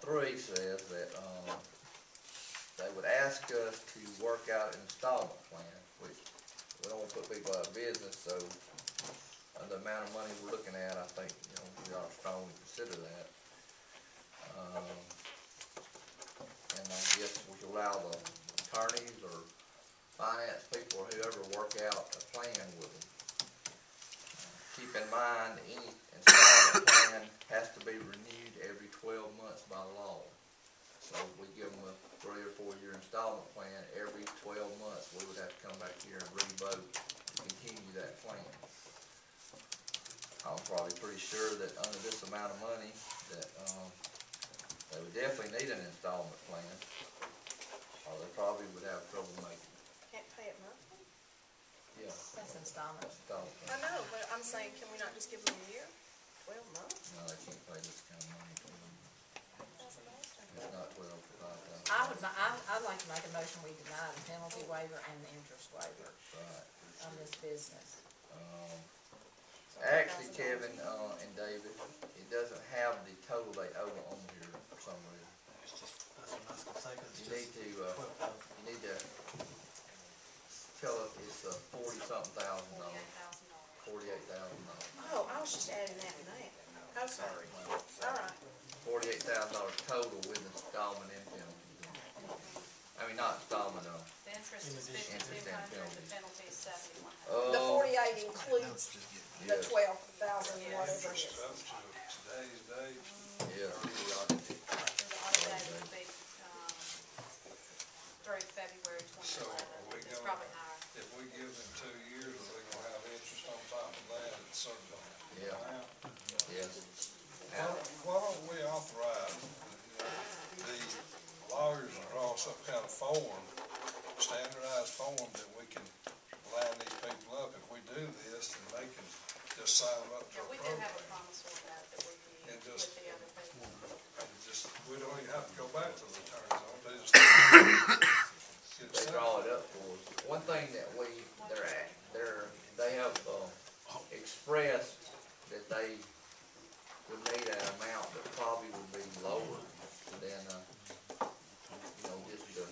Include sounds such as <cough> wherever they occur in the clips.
three says that, um, they would ask us to work out an installment plan, which we don't wanna put people out of business, so uh, the amount of money we're looking at, I think, you know, we ought to strongly consider that. Um, and I guess we should allow the attorneys or finance people or whoever work out a plan with them. Keep in mind, any installment plan has to be renewed every twelve months by law. So if we give them a three or four year installment plan, every twelve months, we would have to come back here and re-vote to continue that plan. I'm probably pretty sure that under this amount of money, that, um, they would definitely need an installment plan, or they probably would have trouble making, Can't pay it monthly? yeah, That's installment. installment I plan. know, but I'm saying, can we not just give them a year? Twelve months? No, they can't pay this kind of money, it's That's amazing. not twelve for five thousand. I would, mi- I, I'd like to make a motion, we deny the penalty waiver and the interest waiver Right, on this business. um, So Actually, $1,000. Kevin, uh, and David, it doesn't have the total they owe on here for some reason. It's just, that's what I was gonna say, 'cause it's You need just to, uh, twelve thousand. you need to tell us it's uh forty-something thousand dollars, forty-eight thousand dollars. Oh, I was just adding that and that. Oh, sorry. All right. Forty-eight thousand dollars total with installment and penalty. I mean, not installment, uh, The interest is In addition to fifty-two hundred, the that penalty is seventy-one hundred. The oh, forty-eight includes the yes, twelve thousand, Yes. whatever it is. Up to today's date, yes. Uh, The audit date would be, um, through February twenty So, are we eleven, it's gonna- probably higher. if we give them two years, we gonna have interest on top of that at some point. Yeah. Now, yes. Why why don't we authorize, you know, the lawyers to draw some kind of form, standardized form that we can line these people up. If we do this, then they can just sign up to Yeah, a we do have a program. promissory note that we And use just- with the other people. And just, we don't even have to go back to the attorneys, all they just. get they signed. draw it up for us. One thing that we, they're, at- they're, they have, uh, expressed that they would need an amount that probably would be lower than, uh, you know, just to,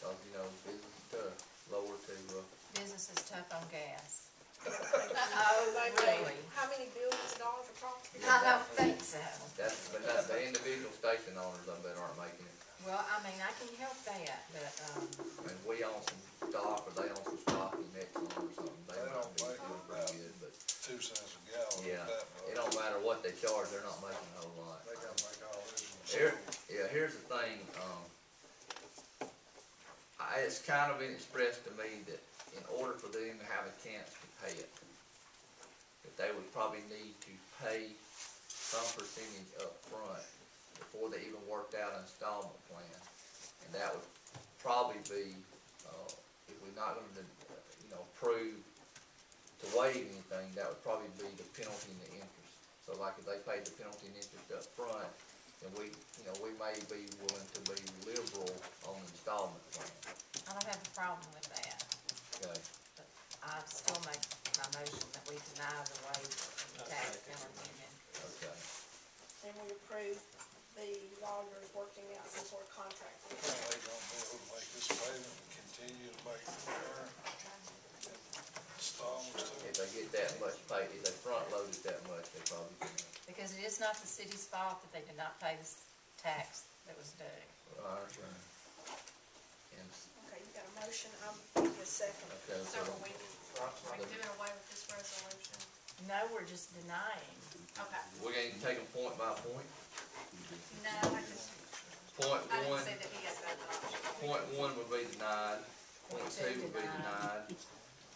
cause, you know, business to, lower to, uh, Business is tough on gas. Oh, <laughs> really? How many billions of dollars of property? I don't think so. that's, but that's the individual station owners, I bet aren't making it. Well, I mean, I can help that, but, um, And we own some stock, or they own some stock in Exxon or something, they They might don't be make it doing about- pretty good, but, two cents a gallon. yeah, that it much. don't matter what they charge, they're not making a whole lot. They gotta make all this. Here, yeah, here's the thing, um, I, it's kind of been expressed to me that in order for them to have a chance to pay it, that they would probably need to pay some percentage up front before they even worked out an installment plan. And that would probably be, uh, if we're not gonna, uh, you know, approve to waive anything, that would probably be the penalty and the interest. So like if they paid the penalty and interest up front, and we, you know, we may be willing to be liberal on the installment plan, I don't have a problem with that. okay? I'd still make my motion that we deny the waiver and the tax penalty and interest. Okay, Then we approve the lawyers working out some sort of contract. with them. They gonna be able to make this payment and continue to make the current installments to if it. they get that much pay, if they front load it that much, they probably can, Because it is not the city's fault that they did not pay this tax that was due. right? And, Okay, you got a motion, I'm, give you a second. okay, so, So are we, are we doing away with this resolution? No, we're just denying. Okay, we're gonna take them point by point. no, I just, Point I didn't one, say that he has that option. point one would be denied, point two would be denied,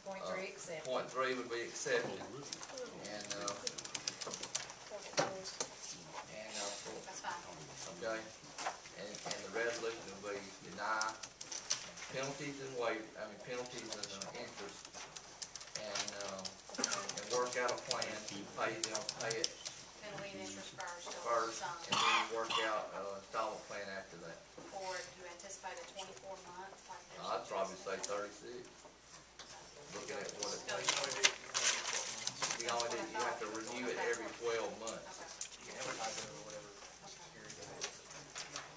Point three accepted. point three would be accepted. And, uh, Point closed. and, uh, That's fine. okay? And, and the resolution will be deny penalties and waive, I mean penalties and uh, interest. And, um, and work out a plan to pay them, pay it Penalty and interest first, so first, it's and on. then work out, uh, installment